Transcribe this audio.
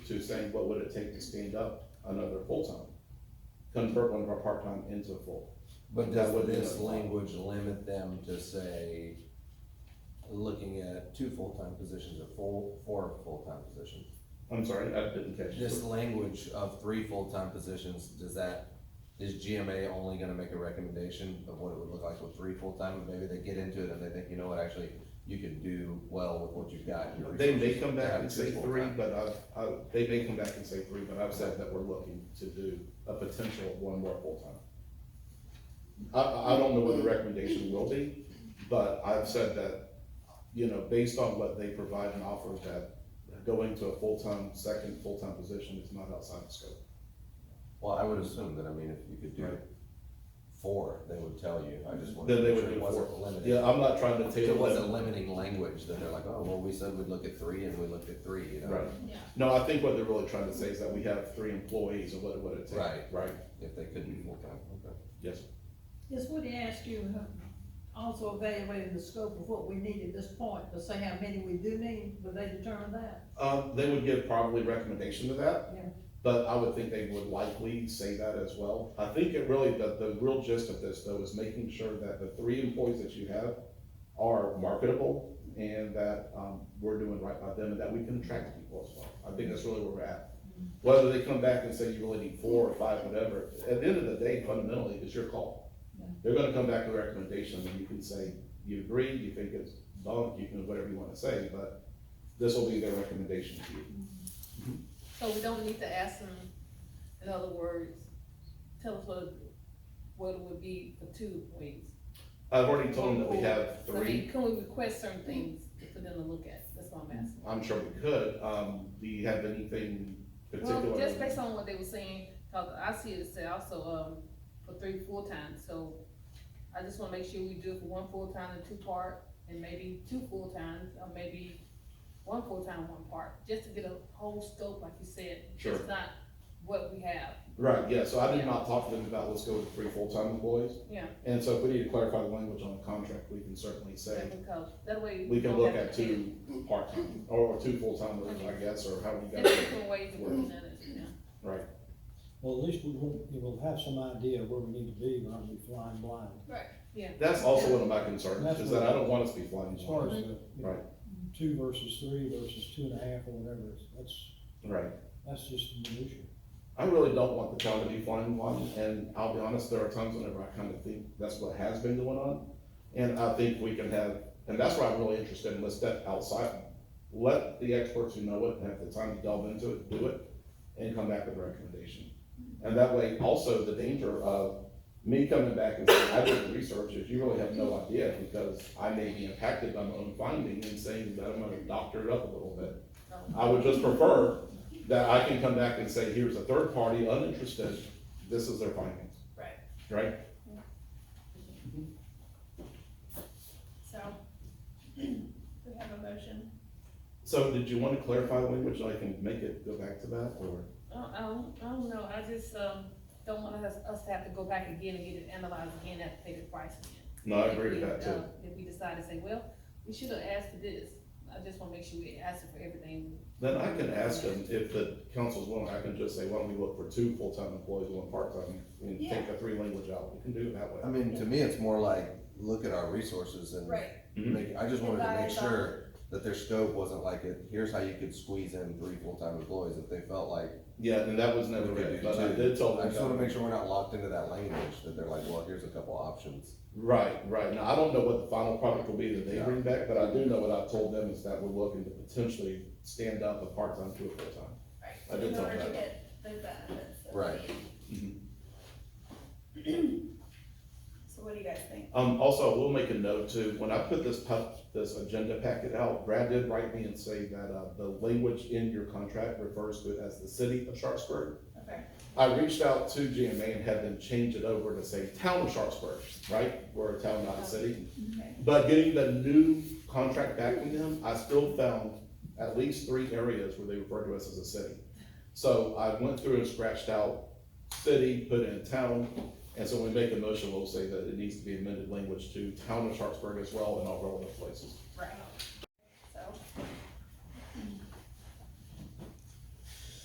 to saying, what would it take to stand up another full-time? Convert one of our part-time into a full. But That does would be this a- language limit them to say, looking at two full-time positions or four, four full-time positions? I'm sorry, I didn't catch This you. language of three full-time positions, does that, is GMA only gonna make a recommendation of what it would look like with three full-time? Maybe they get into it and they think, you know what, actually, you can do well with what you've got. your They may resources, come to back have and two say three, full-time." but I, I, they may come back and say three, but I've said that we're looking to do a potential of one more full-time. I- I, I don't know what the recommendation will be, but I've said that, you know, based on what they provide and offer, that going to a full-time, second full-time position is not outside the scope. Well, I would assume that, I mean, if you could do Right. four, they would tell you, I just wanted Then to they make would sure do it wasn't four. limited. Yeah, I'm not trying to If it table was a it. limiting language, then they're like, oh, well, we said we'd look at three and we looked at three, you know? Right. Yeah, No, I think what they're really trying to say is that we have three employees and what, what it takes. Right. Right, If they couldn't be full-time, okay. yes. This would ask you, uh, also evaluating the scope of what we need at this point, to say how many we do need, would they determine that? Um, they would give probably recommendation to that. Yeah. But I would think they would likely say that as well. I think it really, the, the real gist of this though is making sure that the three employees that you have are marketable and that, um, we're doing right by them and that we can attract people as well. I think that's really where we're at. Mm-hmm. Whether they come back and say you really need four or five, whatever, at the end of the day fundamentally, it's your call. Yeah. They're gonna come back with a recommendation and you can say, you agree, you think it's bunk, you can, whatever you wanna say, but this will be their recommendation to you. so we don't need to ask them, in other words, tell us what, what it would be for two weeks. I've already told them that we have So we- three, Can we request certain things for them to look at, that's what I'm asking. I'm sure we could, um, do you have anything Well, just particular? based on what they were saying, cause I see it said also, um, for three full-time, so I just wanna make sure we do it for one full-time and two part, and maybe two full-times, or maybe one full-time, one part, just to get a whole scope, like you said. Sure. It's not what we have, Right, yeah, so I did not talk to them about, let's go with three full-time employees, yeah. and so if we need to clarify the language on the contract, we can certainly say, That because that way. we don't can look have at to pay. two part-time, or two full-time, I guess, or how we There's got it, different ways of looking at it, yeah. right? Well, at least we will, we will have some idea where we need to be, we're not gonna be flying blind. That's also one of my concerns, That's is that I don't want us to be flying As far as blind, the, you know, Right. two versus three versus two and a half or whatever, it's- that's, right? that's just minutia. I really don't want the town to be flying blind, and I'll be honest, there are times whenever I kind of think that's what has been going on. And I think we can have, and that's why I'm really interested in, let's step outside, let the experts who know it and have the time to delve into it, do it, and come back with a recommendation. And that way, also, the danger of me coming back and saying, I did the research, if you really have no idea, because I may be impacted by my own finding and saying that I'm gonna doctor it up a little bit. I would just prefer that I can come back and say, here's a third party, uninterested, this is their findings, Right, right? so, we have a motion. So did you want to clarify language, I can make it go back to that, or? I don't, I don't, I don't know, I just, um, don't want us, us to have to go back again and get it analyzed again, have to pay the price again. No, I agree with If we, that too. uh, If we decide to say, well, we should have asked for this, I just wanna make sure we ask for everything. Then I can ask them, if the council's willing, I can just say, why don't we look for two full-time employees, one part-time, and take the three language out, we can do it that I way. mean, to me, it's more like, look at our resources and. Make, I just wanted to make Advise on- sure that their scope wasn't like, it. here's how you could squeeze in three full-time employees if they felt like. Yeah, and that was never we could written, do but I two. did tell I them. just wanna that- make sure we're not locked into that language, that they're like, well, here's a couple options. Right, right, now, I don't know what the final product will be that they Yeah. bring back, but I do know what I've told them is that we're looking to potentially stand up a part-time to a full-time. I did In tell order to that. get the benefits. of Right. Mm-hmm. the- So what do you guys think? Um, also, I will make a note too, when I put this pub, this agenda packet out, Brad did write me and say that, uh, the language in your contract refers to it as the city of Sharpsburg. Okay. I reached out to GMA and had them change it over to say town of Sharpsburg, right? We're a town, not a city. Okay. But getting the new contract back from them, I still found at least three areas where they referred to us as a city. So I went through and scratched out city, put in town, and so when we make a motion, we'll say that it needs to be amended language to town of Sharpsburg as well in all relevant places. Right.